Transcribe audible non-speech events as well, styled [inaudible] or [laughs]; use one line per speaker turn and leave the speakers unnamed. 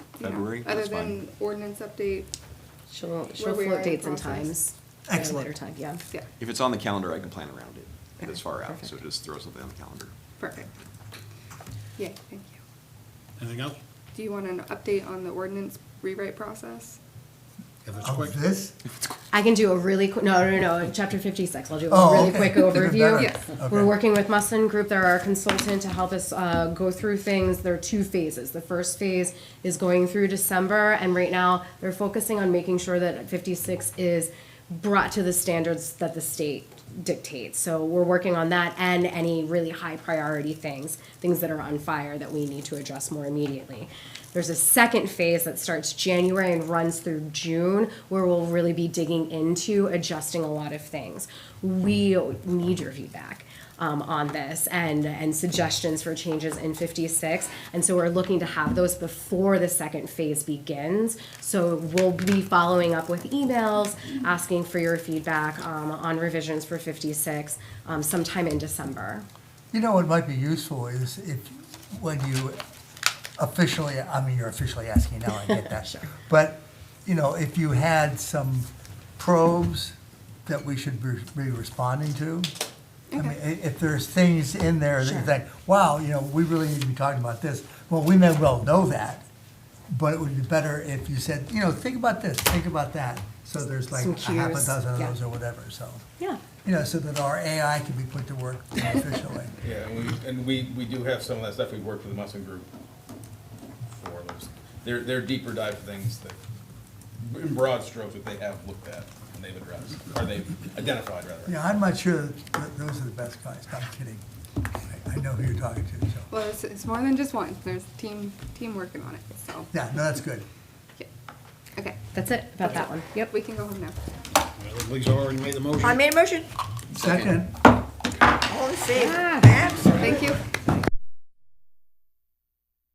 Yeah.
February,
Other
that's fine.
than ordinance update,
She'll, she'll
we are
float
in
dates and
process.
times. at a
Excellent.
Later time, yeah.
yeah,
If it's on the calendar, I can plan around it
Okay,
this far out, so
perfect.
just throw something on the calendar.
perfect. Yeah, thank you.
Anything else?
Do you want an update on the ordinance rewrite process?
If it's quick.
Of Oh, this?
I can do a really quick, no, no, no, chapter fifty-six, I'll do
Oh,
a really
okay.
quick
[laughs] Even better.
overview.
Yes.
We're
Okay.
working with Mustin Group, they're our consultant to help us, uh, go through things, there are two phases. The first phase is going through December, and right now, they're focusing on making sure that fifty-six is brought to the standards that the state dictates. So we're working on that and any really high priority things, things that are on fire that we need to address more immediately. There's a second phase that starts January and runs through June, where we'll really be digging into adjusting a lot of things. We need your feedback um, on this and and suggestions for changes in 56. And so we're looking to have those before the second phase begins. So we'll be following up with emails, asking for your feedback um, on revisions for 56 um, sometime in December.
You know what might be useful is if, when you officially, I mean, you're officially asking now, I
[laughs]
get that. But, you know, if you had some probes that we should be be responding to, I mean, i- if there's things in there that you think, wow, you know, we really need to be talking about this, well, we may well know that, but it would be better if you said, you know, think about this, think about that, so there's like
Some
a half a
cues,
dozen of
yeah.
those or whatever, so.
Yeah.
You know, so that our AI can be put to work efficiently.
Yeah, and we, and we, we do have some of that stuff, we worked with the Muslim Group for, those. they're, they're deeper dive things that, in broad strokes, that they have looked at and they've addressed, or they've identified, rather.
Yeah, I'm not sure that those are the best guys, I'm kidding. I- I know who you're talking to, so,
Well, it's, it's more than just one, there's team, team working on it, so,
yeah, no, that's good.
yeah. Okay,
That's it about that one. Yep.
we can go home now.
Well, Lisa already made the motion.
I made a motion,
Second,
all in favor?
Yeah.
Absolutely.
Thank you.